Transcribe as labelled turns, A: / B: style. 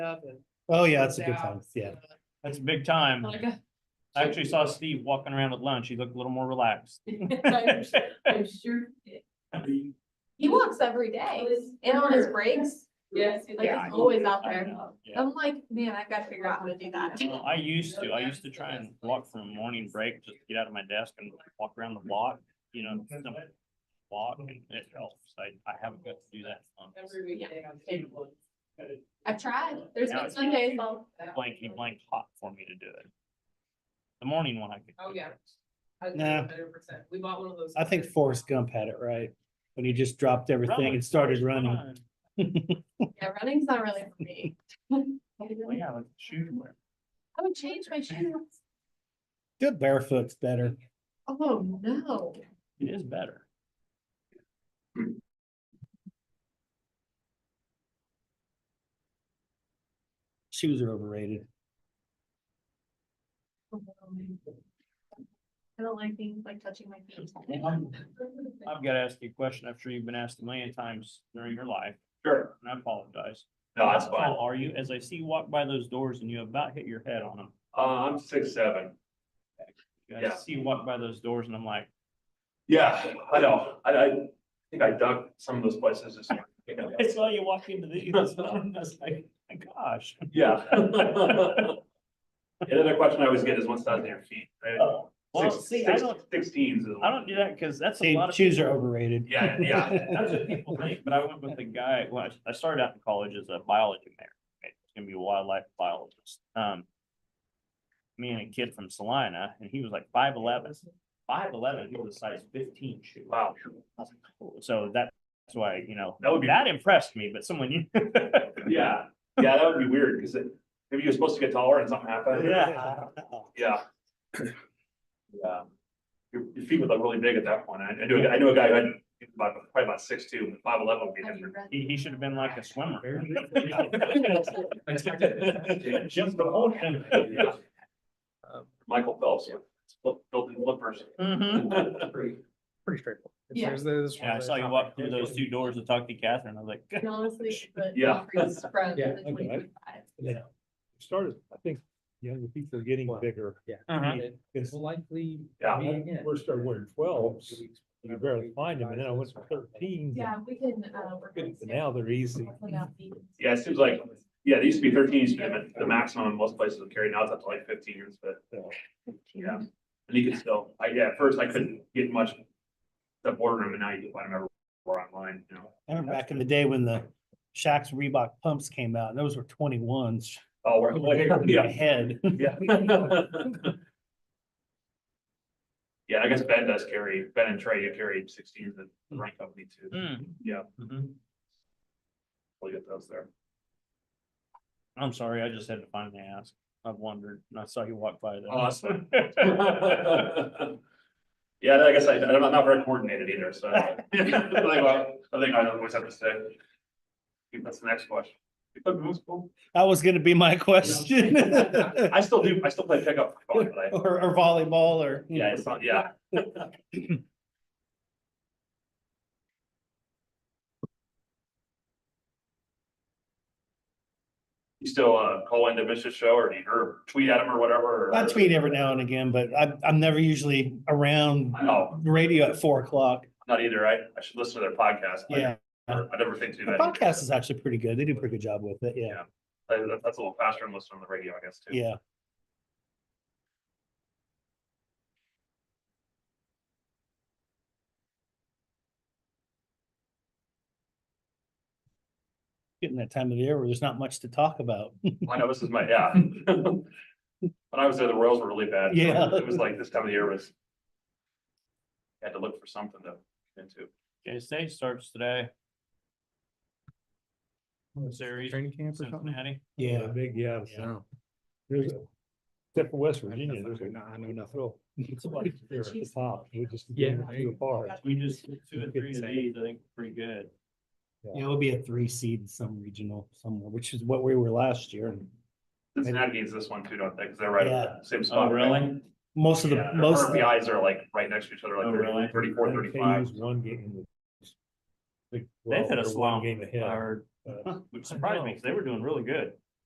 A: up and.
B: Oh, yeah, that's a
A: goes
B: good
A: out.
B: time. Yeah.
C: That's a big time.
A: Like, uh,
C: I actually saw Steve walking around with lunch. He looked a little more relaxed.
A: I'm sure- I'm sure,
D: He walks every day and on his breaks,
A: yes.
D: like
C: Yeah, I
D: he's always out
C: I
D: there.
C: know. Yeah.
D: I'm like, man, I gotta figure out how to do that.
C: Well, I used to, I used to try and walk from morning break, just get out of my desk and walk around the block, you know, some walk and it helps. I, I haven't got to do that. on
A: Every weekday on cable.
D: I've tried. There's
C: Now
D: been
C: it's-
D: some days I'll,
C: Blankety blank hot for me to do it. The morning one I could.
A: Oh, yeah.
B: Nah.
A: Hundred percent. We bought one of those.
B: I think Forrest Gump had it right. When he just dropped everything and started running.
D: yeah, running's not really for me.
C: Well,
D: I
C: yeah, like shoot. wear.
D: would change my shoes.
B: Good barefoot's better.
D: Oh, no.
C: It is better.
B: Shoes are overrated.
D: I don't like things like touching my feet.
C: I've got to ask you a question. I'm sure you've been asked a million times during your life.
E: Sure.
C: And I apologize.
E: No, that's
C: How
E: fine.
C: tall Are you, as I see you walk by those doors and you about hit your head on them.
E: Uh, I'm six, seven.
C: I
E: Yeah.
C: see you walk by those doors and I'm like,
E: Yeah, I know. I, I think I dug some of those places. this morning.
C: I saw you walk into the, this door and I was like, my gosh.
E: Yeah. And then the question I always get is what's on your feet? right?
C: Uh, Well,
E: Six-
C: see, I
E: six-
C: don't,
E: Sixteens. is-
C: I don't do that because that's a
B: See,
C: lot of.
B: shoes are
C: people-
B: overrated.
E: Yeah, yeah.
C: That's what people think, but I went with a guy, well, I- I started out in college as a biology major, right? It's gonna be a wildlife biologist. Um. Me and a kid from Salina, and he was like five eleven. Five eleven, he was a size fifteen shoe.
E: Wow.
C: I was like, "Oh," So that's why, you know,
E: That would be-
C: that impressed me, but someone you.
E: Yeah, yeah, that would be weird because maybe you're supposed to get taller and something happened.
C: Yeah.
E: Yeah. Yeah. Your, your feet would look really big at that point. I, I knew, a guy- I knew a guy who had about, probably about six two, five eleven would be
D: Have you
E: different.
D: read-
C: He, he should have been like a swimmer.
E: Just the whole thing.
B: Um,
E: Michael Phelps, flip- built in flippers.
C: Mhm.
F: pretty straightforward. It's-
D: Yeah.
F: there's- there's one
C: Yeah, I
F: other
C: saw you
F: topic.
C: walk through those two doors to talk to Catherine. I was like,
D: And Honestly, but.
E: Yeah.
D: Spread.
F: Yeah,
B: okay.
F: Yeah.
B: Started, I think, younger people are getting
F: Wow.
B: bigger.
C: Uh-huh.
F: It will likely.
E: Yeah.
F: be again.
B: First I wanted 12s, you barely find them, and then I went to thirteen.
D: Yeah, we can, uh. work on
B: But Now they're easy.
D: Hopefully not be-
E: Yeah, it seems like, yeah, they used to be thirteen, used to be the- the maximum in most places would carry, now it's up to like fifteen, but yeah. And you can still, I, yeah, at first I couldn't get much the boardroom and now you can find them everywhere online, you know.
B: I remember back in the day when the Shacks Reebok pumps came out, and those were twenty-ones.
E: Oh, we're, yeah.
B: Head.
E: Yeah. Yeah, I guess Ben does carry, Ben and Trey, you carry sixteen, the rank company too.
C: "Hmm,
E: Yeah,
C: mhm."
E: we'll get those there.
C: I'm sorry, I just had to finally ask. I've wondered and I saw you walk by. there.
E: Awesome. Yeah, I guess I, I'm not very coordinated either, so. I think I I think I always have to say. I think That's the next question. Pickup moves cool.
B: That was gonna be my question.
E: I still do, I still play pickup, for fun, but I,
B: Or, or volleyball or. you
E: yeah,
B: know.
E: it's not, yeah. You still, uh, call into Mish's show or, or tweet at him or whatever? or-
B: I tweet every now and again, but I, I'm never usually around
E: I know,
B: radio at four o'clock.
E: not either, I, I should listen to their podcast. but
B: Yeah,
E: I never think too
B: the
E: bad.
B: podcast is actually pretty good. They do a pretty good job with it. Yeah,
E: That- That's a little faster than listening to the radio, I guess, too.
B: yeah. Getting that time of year where there's not much to talk about.
E: I know this is my, yeah. When I was there, the Royals were really bad.
B: Yeah.
E: It was like this time of year was. Had to look for something to into.
C: Okay, state starts today,
F: Oh, it's
C: Series,
F: Training camp or something?
C: Cincinnati.
B: Yeah, big, yeah.
F: No.
B: Except for West
F: Virginia, there's a- No, I know nothing.
D: Chiefs.
F: Yeah. too
C: We just did two and three today, I think, pretty good.
B: Yeah, it'll be a three seed in some regional somewhere, which is what we were last year. And
E: Cincinnati needs this one too, don't they? Cause they're right, at the same
C: Oh,
E: spot. right?
C: really?
B: Most of the,
E: Yeah, their
B: most of the
E: RBIs are like right next to each other,
C: Oh, really?
E: like 34, 35.
B: One game. Uh,
C: They've hit a slump, or, which surprised me, because they were doing really good.